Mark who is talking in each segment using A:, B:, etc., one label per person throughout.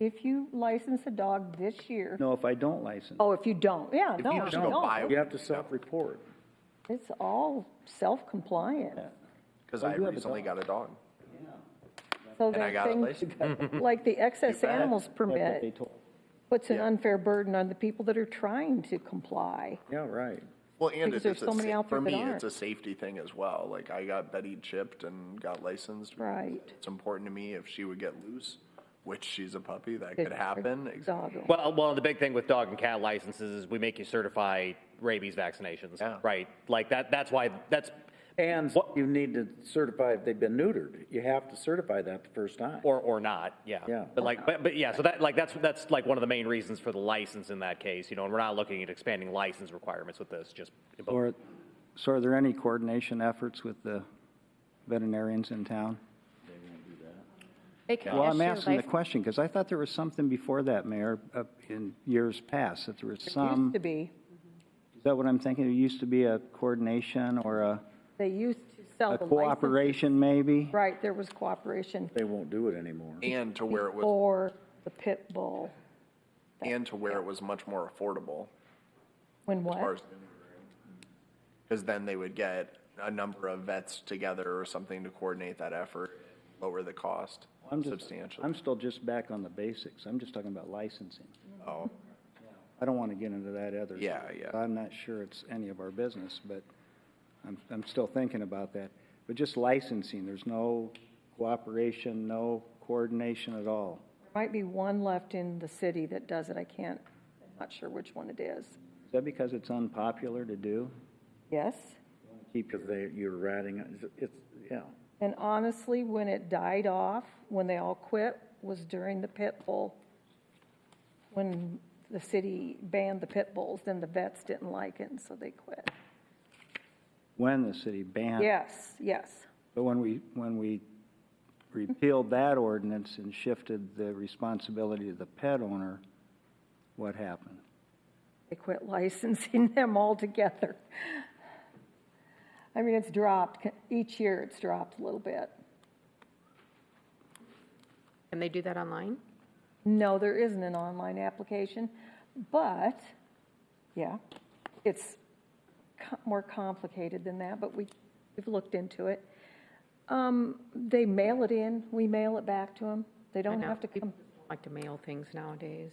A: If you license a dog this year,
B: No, if I don't license,
A: oh, if you don't, yeah,
C: If
A: no,
C: you
A: if
C: just
A: you
C: go buy
A: don't.
C: it.
B: you have to self-report.
A: It's all self-compliant.
C: Because
B: I
C: I
B: do have a
C: recently got a dog.
A: So
C: And I
A: that
C: got it
A: thing-
C: licensed.
A: Like the excess
C: You bet.
A: animals
B: That's what they
A: permit
B: told.
A: puts an
C: Yeah.
A: unfair burden on the people that are trying to comply.
B: Yeah, right.
C: Well, and
A: Because
C: it's,
A: there's
C: a
A: so many
C: sa-
A: out there
C: for
A: that
C: me,
A: aren't.
C: it's a safety thing as well. Like I got Betty chipped and got licensed. because
A: Right.
C: It's important to me if she would get loose, which she's a puppy, that
A: Good
C: could
A: for
C: happen. Ex-
A: Doggo.
D: Well, uh, well, the big thing with dog and cat licenses is we make you certify rabies vaccinations,
C: Yeah.
D: right? Like that. That's why. That's
B: And you need to certify if they've been neutered. You have to certify that the first time.
D: or or not. Yeah.
B: Yeah.
D: But like, but, but yeah. So that like that's that's like one of the main reasons for the license in that case. You know, and we're not looking at expanding license requirements with this. Just
B: Or, so are there any coordination efforts with the veterinarians in town?
E: They can
B: Well, I'm
E: issue
B: asking the
E: lic-
B: question, because I thought there was something before that, Mayor, uh, in years past, that there was
A: Used
B: some,
A: to be,
B: is that what I'm thinking? There used to be a coordination or a,
A: they used to sell
B: a
A: the license.
B: cooperation, maybe?
A: Right, there was cooperation
F: They won't do it anymore.
C: And to where it was,
A: for the pit bull.
C: and to where it was much more affordable.
A: When
C: as far
A: what?
C: as Because then they would get a number of vets together or something to coordinate that effort, lower the cost
B: I'm just- I'm
C: substantially.
B: still just back on the basics. I'm just talking about licensing.
C: Oh,
B: I don't want to get into that other.
C: Yeah, yeah.
B: I'm not sure it's any of our business, but I'm, I'm still thinking about that. But just licensing, there's no cooperation, no coordination at all.
A: Might be one left in the city that does it, I can't, I'm not sure which one it is.
B: Is that because it's unpopular to do?
A: Yes?
B: Keep
F: Because they, you're ratting, it's- it's, yeah.
A: And honestly, when it died off, when they all quit, was during the pit bull. When the city banned the pit bulls, then the vets didn't like it, and so they quit.
B: when the city banned.
A: Yes, yes,
B: But when we, when we repealed that ordinance and shifted the responsibility to the pet owner, what happened?
A: they quit licensing them altogether. I mean, it's dropped, each year it's dropped a little bit.
E: Can they do that online?
A: No, there isn't an online application, but, yeah, it's co- more complicated than that, but we, we've looked into it. Um, They mail it in, we mail it back to them. They
E: I
A: don't
E: know
A: have to
E: people
A: come,
E: Like to mail things nowadays.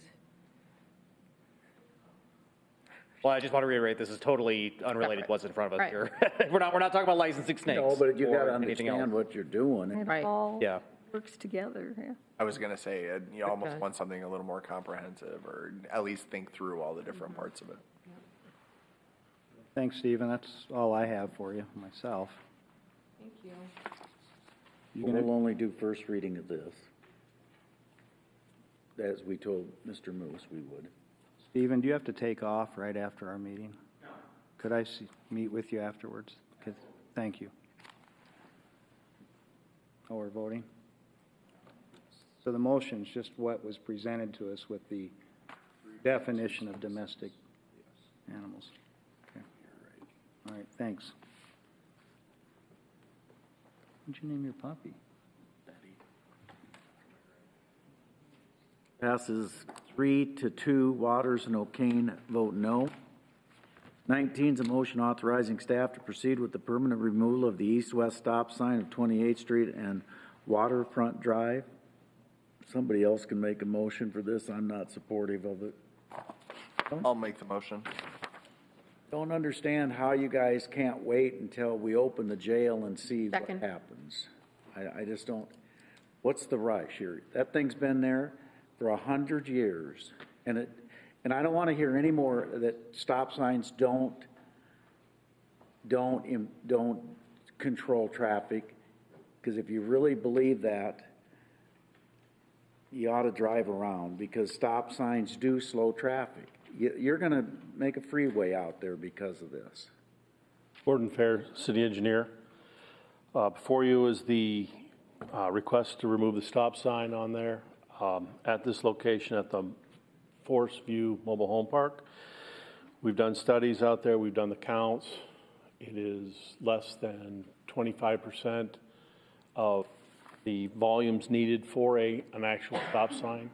D: well, I just want to reiterate this is totally unrelated. to What's in front of us
E: Right.
D: here? we're not we're not talking about licensing snakes.
F: No, but you
D: or
F: gotta
D: anything else.
F: understand what you're doing.
A: it
E: Right.
A: all
D: Yeah.
A: works together, yeah.
C: I was gonna say, uh, you almost
E: Okay.
C: want something a little more comprehensive, or at least think through all the different parts of it.
B: Thanks, Stephen. That's all I have for you, myself. Thank you.
F: We'll only do first reading of this. As we told Mr. Moose we would.
B: Stephen, do you have to take off right after our meeting? No. Could I see, meet with you afterwards? Could- Thank you. Oh, we're voting? So the motion's just what was presented to us with the definition of domestic animals. Okay. All right, thanks. What'd you name your puppy?
F: Passes three to two. Waters and O'Kane vote no. 19 is a motion authorizing staff to proceed with the permanent removal of the east-west stop sign of 28th Street and Waterfront Drive. Somebody else can make a motion for this. I'm not supportive of it.
C: I'll make the motion.
F: Don't understand how you guys can't wait until we open the jail and see what
E: Second.
F: happens. I, I just don't, what's the rush here? That thing's been there for a hundred years, and it, and I don't want to hear any more that stop signs don't, don't, im- don't control traffic, because if you really believe that, you ought to drive around because stop signs do slow traffic. You, you're going to make a freeway out there because of this.
G: Gordon Fair, city engineer. Uh, Before you is the uh, request to remove the stop sign on there um, at this location at the Forest View Mobile Home Park. We've done studies out there, we've done the counts. It is less than 25% of the volumes needed for a, an actual stop sign.